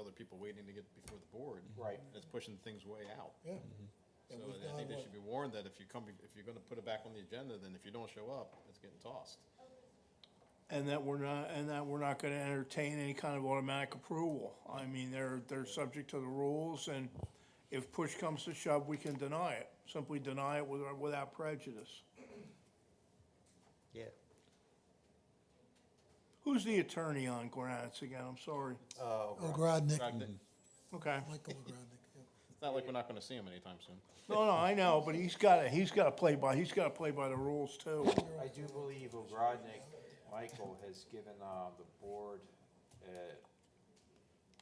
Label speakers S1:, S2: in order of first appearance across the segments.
S1: other people waiting to get before the board.
S2: Right.
S1: It's pushing things way out.
S3: yeah.
S1: So
S3: And we've
S1: I think
S3: done
S1: they
S3: what,
S1: should be warned that if you come, if you're gonna put it back on the agenda, then if you don't show up, it's getting tossed.
S4: And that we're not, and that we're not gonna entertain any kind of automatic approval. I mean, they're, they're subject to the rules, and if push comes to shove, we can deny it. Simply deny it without, without prejudice.
S2: Yeah.
S4: Who's the attorney on Granite's again? I'm sorry.
S2: Uh,
S3: Oh, Ogrodnik,
S1: Right, th-
S4: Okay.
S3: Michael Ogrodnik, yeah.
S1: It's not like we're not gonna see him anytime soon.
S4: No, no, I know, but he's gotta, he's gotta play by, he's gotta play by the rules too.
S2: I do believe Ogrodnik, Michael, has given uh, the board uh,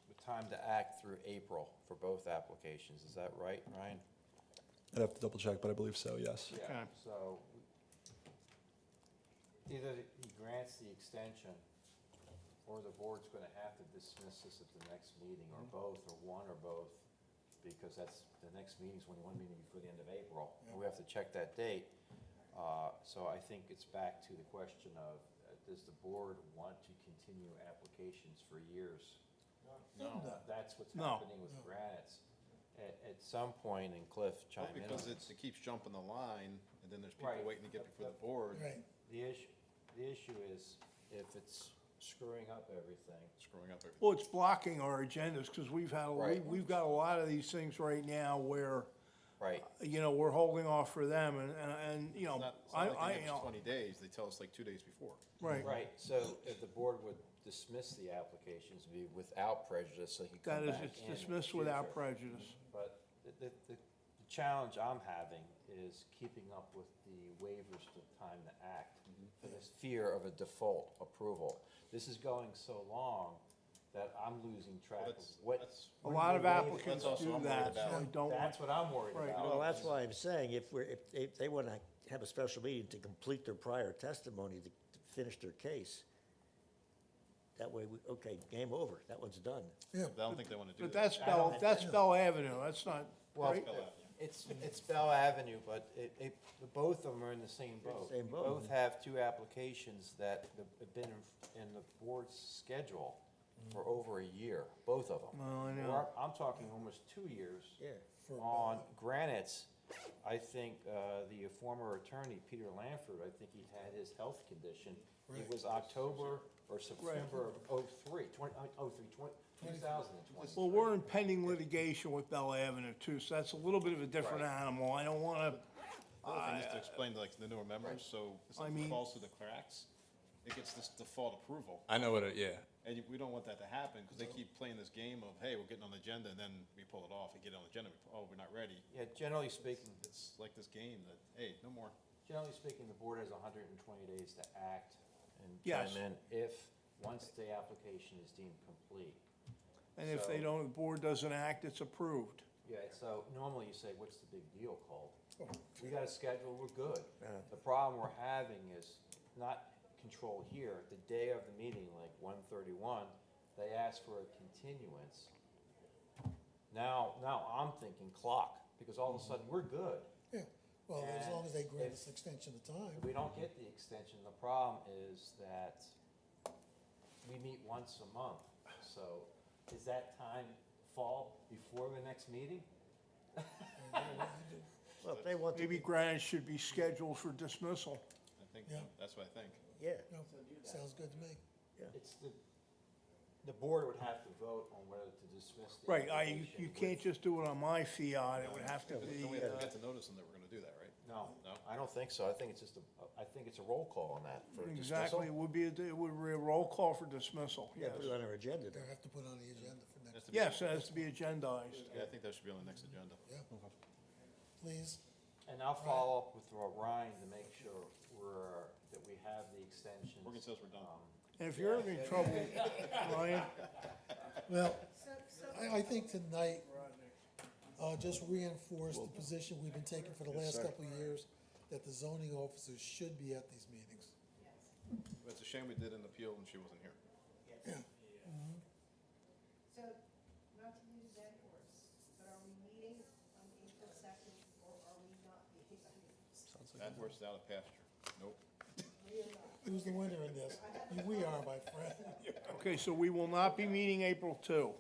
S2: the time to act through April for both applications. Is that right, Ryan?
S5: I'd have to double check, but I believe so, yes.
S2: Yeah,
S4: Okay.
S2: so either he grants the extension, or the board's gonna have to dismiss this at the next meeting, or
S4: Mm-hmm.
S2: both, or one, or both, because that's, the next meeting's only one meeting before the end of April, and we have to check that date. Uh, so I think it's back to the question of, uh, does the board want to continue applications for years? No. That's what's
S4: No.
S2: happening with grants. At, at some point, and Cliff chime
S1: Well,
S2: in on
S1: Because
S2: this.
S1: it's, it keeps jumping the line, and then there's people
S2: Right.
S1: waiting to get before the board,
S3: Right,
S2: The issue, the issue is if it's screwing up everything.
S1: screwing up everything.
S4: Well, it's blocking our agendas, because we've had, we-
S2: Right.
S4: we've got a lot of these things right now where,
S2: Right.
S4: you know, we're holding off for them, and, and, and,
S1: It's
S4: you know,
S1: not, it's
S4: I,
S1: not like
S4: I,
S1: they
S4: you
S1: give us
S4: know,
S1: twenty days, they tell us like two days before.
S4: right.
S2: Right, so if the board would dismiss the applications, be without prejudice, so he could
S4: That
S2: come
S4: is,
S2: back
S4: it's
S2: in in the
S4: dismissed without
S2: future.
S4: prejudice.
S2: But the, the, the the challenge I'm having is keeping up with the waivers to time to act for this fear of a default approval. This is going so long that I'm losing track of
S1: that's-
S2: what.
S1: that's-
S4: A
S2: when
S4: lot
S2: we're
S4: of
S2: waiting.
S4: applicants
S1: also
S4: do
S1: I'm worried
S4: that, so
S1: about.
S4: I don't, want-
S2: That's what I'm worried
S4: Right.
S2: about.
S6: Well, that's why I'm saying, if we're, if, if they want to have a special meeting to complete their prior testimony, to to finish their case, that way, we, okay, game over, that one's done.
S3: yeah.
S1: I don't think they wanna do
S4: but
S1: that.
S4: that's Bell, that's Bell Avenue, that's not,
S2: Well,
S4: right?
S2: it's, it's Bell Avenue, but it, it, the both of them are in the same boat.
S6: same
S2: You
S6: boat.
S2: Both have two applications that have been in, in the board's schedule for over a year, both of them.
S4: Well, I know.
S2: Or I'm talking almost two years.
S6: Yeah.
S3: For
S2: On Granite's, I think, uh, the former attorney, Peter Lanford, I think he had his health condition.
S3: Right.
S2: It was October or September of oh-three, twenty, oh-three, twenty, two thousand and twenty.
S4: Well, we're in pending litigation with Bell Avenue too, so that's a little bit of a different
S2: Right.
S4: animal. I don't want to,
S1: The other thing is to explain to like the newer members, so if something
S4: mean-
S1: falls through the cracks, it gets this default approval.
S5: I know what it, yeah.
S1: And you- we don't want that to happen, because they keep playing this game of, hey, we're getting on the agenda, and then we pull it off, we get on the agenda, we, pull- oh, we're not ready.
S2: Yeah, generally speaking,
S1: It's like this game that, hey, no more.
S2: Generally speaking, the board has hundred and twenty days to act and
S4: Yes.
S2: chime in if, once the application is deemed complete.
S4: and if they
S2: So-
S4: don't, the board doesn't act, it's approved.
S2: Yeah, so normally you say, what's the big deal, Cole? We got a schedule, we're good. The problem we're having is not control here. The day of the meeting, like one thirty-one, they asked for a continuance. Now, now I'm thinking clock, because all of a sudden, we're good.
S3: Yeah, well, as
S2: And
S3: long as they grant
S2: if-
S3: us extension of
S2: If
S3: time,
S2: we don't get the extension, the problem is that we meet once a month. So does that time fall before the next meeting?
S6: Well, if they want to,
S4: Maybe Granite should be scheduled for dismissal.
S1: I think,
S3: Yeah.
S1: that's what I think.
S6: yeah,
S3: no, sounds good to me.
S2: It's the, the board would have to vote on whether to dismiss the
S4: Right, I, you-
S2: application
S4: you
S2: with-
S4: can't just do it on my fiat, it would have to
S1: But
S4: be,
S1: Then we
S4: uh,
S1: have to get to notice them that we're gonna do that, right?
S2: No,
S1: No?
S2: I don't think so. I think it's just a, I think it's a roll call on that for dismissal.
S4: exactly, it would be, a- it would be a roll call for dismissal,
S6: yeah,
S4: yes.
S6: put it on our agenda
S3: They'll
S6: then.
S3: have to put on the agenda for
S1: Has to
S3: next,
S1: be-
S4: Yes, it has to be agendized.
S1: Yeah, I think that should be on the next agenda.
S3: please.
S2: And I'll follow up with Ryan to make sure we're, that we have the extensions.
S1: Morgan says we're done.
S2: Um,
S4: And if you're having trouble, Ryan,
S3: Well, I, I think tonight, uh, just reinforce the position we've been taking for the last couple of years, that the zoning officers should be at these meetings.
S1: It's a shame we did an appeal and she wasn't here.
S7: So, not to use that horse, but are we meeting on April second, or are we not meeting?
S1: That horse is out of pasture. Nope.
S7: We are not.
S3: Who's the winner in this? We are, my friend.
S4: okay, so we will not be meeting April two.